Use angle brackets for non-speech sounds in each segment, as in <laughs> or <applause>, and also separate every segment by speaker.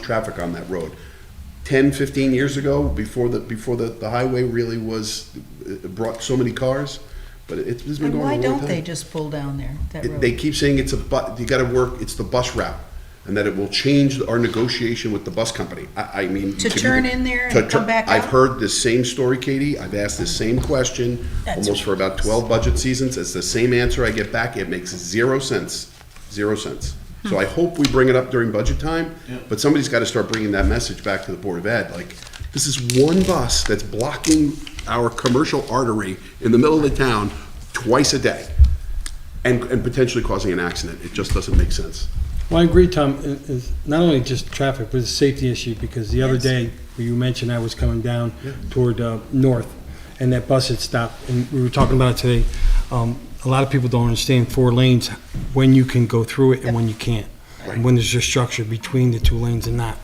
Speaker 1: traffic on that road. 10, 15 years ago, before the, before the, the highway really was, it brought so many cars, but it's it's been going
Speaker 2: And
Speaker 1: on a
Speaker 2: why
Speaker 1: long
Speaker 2: don't
Speaker 1: time.
Speaker 2: they just pull down there, that
Speaker 1: It- They
Speaker 2: road?
Speaker 1: keep saying it's a bu, you gotta work, it's the bus route, and that it will change our negotiation with the bus company. I, I mean.
Speaker 2: To
Speaker 1: you-
Speaker 2: turn in there and
Speaker 1: to tur-
Speaker 2: come back
Speaker 1: I've
Speaker 2: out?
Speaker 1: heard this same story, Katie. I've asked this same question
Speaker 2: That's
Speaker 1: almost for about twelve budget seasons. It's the same answer I get back. It makes zero sense, zero sense. So I hope we bring it up during budget time, but somebody's gotta start bringing that message back to the Board of Ed, like, this is one bus that's blocking our commercial artery in the middle of the town twice a day and, and potentially causing an accident. It just doesn't make sense.
Speaker 3: Well, I agree, Tom, It- it's not only just traffic, but it's a safety issue, because the other day, you mentioned I was coming down toward uh, north, and that bus had stopped, and we were talking about it today. Um, A lot of people don't understand four lanes, when you can go through it and when you can't, and when there's a structure between the two lanes and not.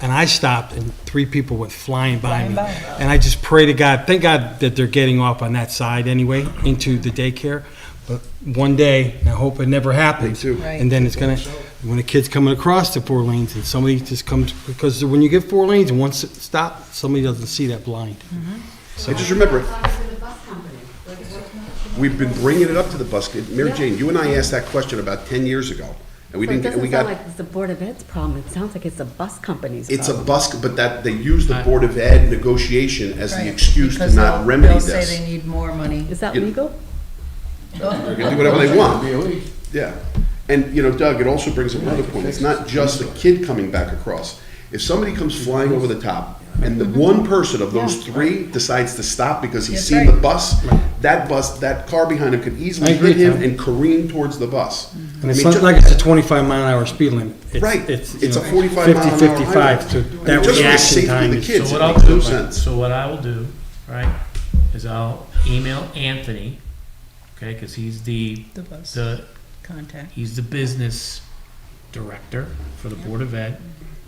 Speaker 3: And I stopped, and three people went flying by
Speaker 2: Flying
Speaker 3: me.
Speaker 2: by.
Speaker 3: And I just pray to God, thank God that they're getting off on that side anyway, into the daycare. But one day, and I hope it never happens.
Speaker 1: Me too.
Speaker 2: Right.
Speaker 3: And then it's gonna, when a kid's coming across the four lanes and somebody just comes, because when you get four lanes and one s- stop, somebody doesn't see that blind.
Speaker 1: Mm-hmm. I just remember,
Speaker 4: Talking to the bus company. Like, what-
Speaker 1: we've been bringing it up to the bus. Mary Jane, you and I asked that question about ten years ago, and we
Speaker 4: It
Speaker 1: didn't, and we
Speaker 4: doesn't sound
Speaker 1: got,
Speaker 4: like it's the Board of Ed's problem, it sounds like it's the bus company's problem.
Speaker 1: it's a bus, but that, they use the Board of Ed negotiation as the excuse to not remedy this.
Speaker 2: They'll say they need more money. <laughs>
Speaker 4: Is that
Speaker 1: it-
Speaker 4: legal?
Speaker 1: They can do whatever they want. Yeah. And, you know, Doug, it also brings up another point. It's not just the kid coming back across. If somebody comes flying over the top and the one person of those three decides to stop because he's
Speaker 2: That's
Speaker 1: seen the
Speaker 2: right.
Speaker 1: bus, that bus, that car behind him could easily
Speaker 3: I agree,
Speaker 1: hit him
Speaker 3: Tom.
Speaker 1: and careen towards the bus.
Speaker 3: And
Speaker 1: I mean,
Speaker 3: it's not
Speaker 1: ju-
Speaker 3: like it's a twenty-five mile an hour speed limit. It's-
Speaker 1: Right.
Speaker 3: you
Speaker 1: It's a
Speaker 3: know,
Speaker 1: 45 mile an hour
Speaker 3: 50, Fifty-five,
Speaker 1: highway.
Speaker 3: so
Speaker 1: I mean,
Speaker 3: that
Speaker 1: just for the
Speaker 3: reaction
Speaker 1: safety of
Speaker 3: time
Speaker 1: the
Speaker 3: is.
Speaker 1: kids.
Speaker 5: So
Speaker 1: it
Speaker 5: what I'll
Speaker 1: makes no
Speaker 5: do,
Speaker 1: sense.
Speaker 5: so what I will do, right, is I'll email Anthony, okay, because he's the,
Speaker 2: The bus
Speaker 5: <laughs> the,
Speaker 2: contact.
Speaker 5: he's the business director for the Board of Ed.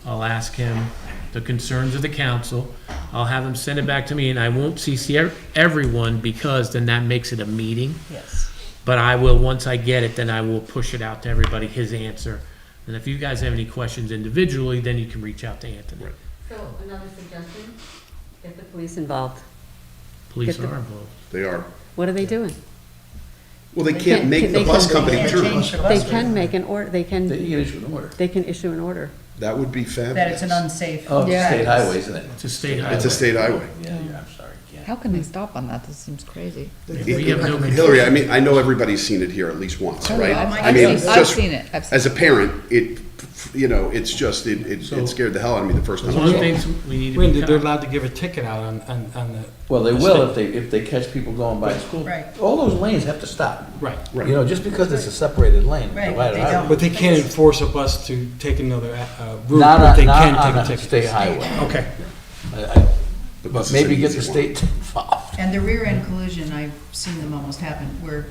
Speaker 5: I'll ask him the concerns of the council. I'll have him send it back to me, and I won't CC ev- everyone, because then that makes it a meeting.
Speaker 2: Yes.
Speaker 5: But I will, once I get it, then I will push it out to everybody, his answer. And if you guys have any questions individually, then you can reach out to Anthony.
Speaker 4: So another suggestion, get the police involved.
Speaker 5: Police
Speaker 4: Get the-
Speaker 5: are involved.
Speaker 1: They are.
Speaker 4: What are they doing?
Speaker 1: Well, they can't make the
Speaker 4: they
Speaker 1: bus
Speaker 4: can't-
Speaker 1: company
Speaker 2: Can't
Speaker 1: turn.
Speaker 2: change the
Speaker 4: They
Speaker 2: bus route.
Speaker 4: can make an order, they can. They can issue an order. They can issue an order.
Speaker 1: That would be fabulous.
Speaker 2: That it's an unsafe.
Speaker 6: Oh, it's a state
Speaker 2: practice.
Speaker 6: highway, isn't it?
Speaker 5: It's a state highway.
Speaker 1: It's a state highway.
Speaker 6: Yeah, you're- I'm sorry, yeah.
Speaker 7: How can they stop on that? That seems crazy.
Speaker 5: We have no
Speaker 1: Hillary, I mean, I know everybody's seen it here at least once,
Speaker 7: Oh,
Speaker 1: right?
Speaker 7: yeah, I've-
Speaker 1: I
Speaker 7: I've
Speaker 1: mean,
Speaker 7: seen- I've
Speaker 1: just-
Speaker 7: seen it, I've seen
Speaker 1: As a parent, it, you know, it's just, it, it it scared the hell out of me the first time.
Speaker 5: One of the
Speaker 1: I saw it.
Speaker 5: things we need
Speaker 3: When
Speaker 5: to
Speaker 3: they're
Speaker 5: be,
Speaker 3: allowed to give a ticket out on, on, on the.
Speaker 6: Well, they
Speaker 3: the
Speaker 6: will
Speaker 3: state.
Speaker 6: if they, if they catch people going by the school.
Speaker 2: Right.
Speaker 6: All those lanes have to stop.
Speaker 3: Right.
Speaker 1: Right.
Speaker 6: You know, just because it's a separated lane,
Speaker 2: Right,
Speaker 6: divided
Speaker 2: they
Speaker 6: highway.
Speaker 3: But they can't enforce a bus to take another, uh, route,
Speaker 6: Not
Speaker 3: but they
Speaker 6: on,
Speaker 3: can
Speaker 6: not
Speaker 3: take
Speaker 6: on
Speaker 3: a
Speaker 6: a
Speaker 3: ticket.
Speaker 6: state highway.
Speaker 3: Okay.
Speaker 6: I- I-
Speaker 1: The bus
Speaker 6: But
Speaker 1: is an
Speaker 6: maybe get
Speaker 1: easy
Speaker 6: the
Speaker 1: one.
Speaker 6: state <laughs> involved.
Speaker 2: And the rear end collision, I've seen them almost happen, where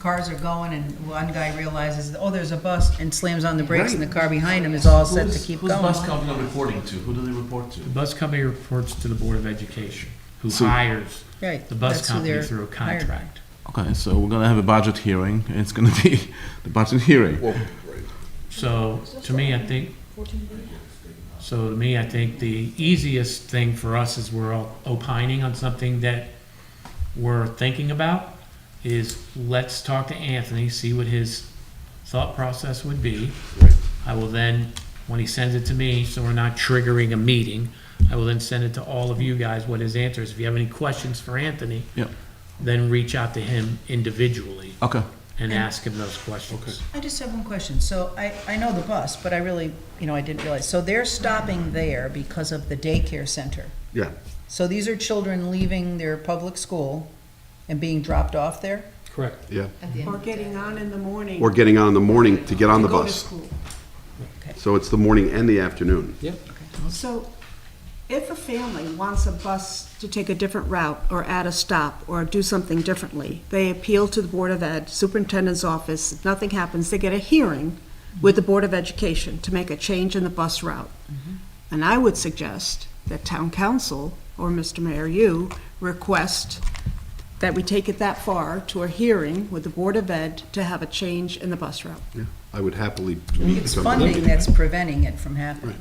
Speaker 2: cars are going and one guy realizes, oh, there's a bus, and slams on the brakes, and the car behind him is all set to keep going.
Speaker 8: company reporting to? Who do they report to?
Speaker 5: the bus company reports to the Board of Education, who
Speaker 8: So-
Speaker 5: hires
Speaker 2: Right,
Speaker 5: the bus
Speaker 2: that's who
Speaker 5: company
Speaker 2: they're
Speaker 5: through a
Speaker 2: hired by.
Speaker 5: contract.
Speaker 8: Okay, so we're gonna have a budget hearing. It's gonna be <laughs> the budget hearing.
Speaker 1: Well, right.
Speaker 5: So, to me, I think, so to me, I think the easiest thing for us is we're all opining on something that we're thinking about, is let's talk to Anthony, see what his thought process would be. I will then, when he sends it to me, so we're not triggering a meeting, I will then send it to all of you guys, what his answer is. If you have any questions for Anthony,
Speaker 8: Yep.
Speaker 5: then reach out to him individually
Speaker 8: Okay.
Speaker 5: and ask him those questions.
Speaker 2: I just have one question. So I, I know the bus, but I really, you know, I didn't realize. So they're stopping there because of the daycare center.
Speaker 1: Yeah.
Speaker 2: So these are children leaving their public school and being dropped off there?
Speaker 3: Correct.
Speaker 9: Or getting on in the morning.
Speaker 1: Or getting on in the morning to get on the
Speaker 9: go to
Speaker 1: bus.
Speaker 9: school.
Speaker 1: So it's the morning and the afternoon.
Speaker 9: So if a family wants a bus to take a different route or add a stop or do something differently, they appeal to the Board of Ed, Superintendent's Office. If nothing happens, they get a hearing with the Board of Education to make a change in the bus route. And I would suggest that Town Council or Mr. Mayor, you request that we take it that far to a hearing with the Board of Ed to have a change in the bus route.
Speaker 1: I would happily meet
Speaker 2: It's
Speaker 1: somebody.
Speaker 2: funding that's preventing it from happening.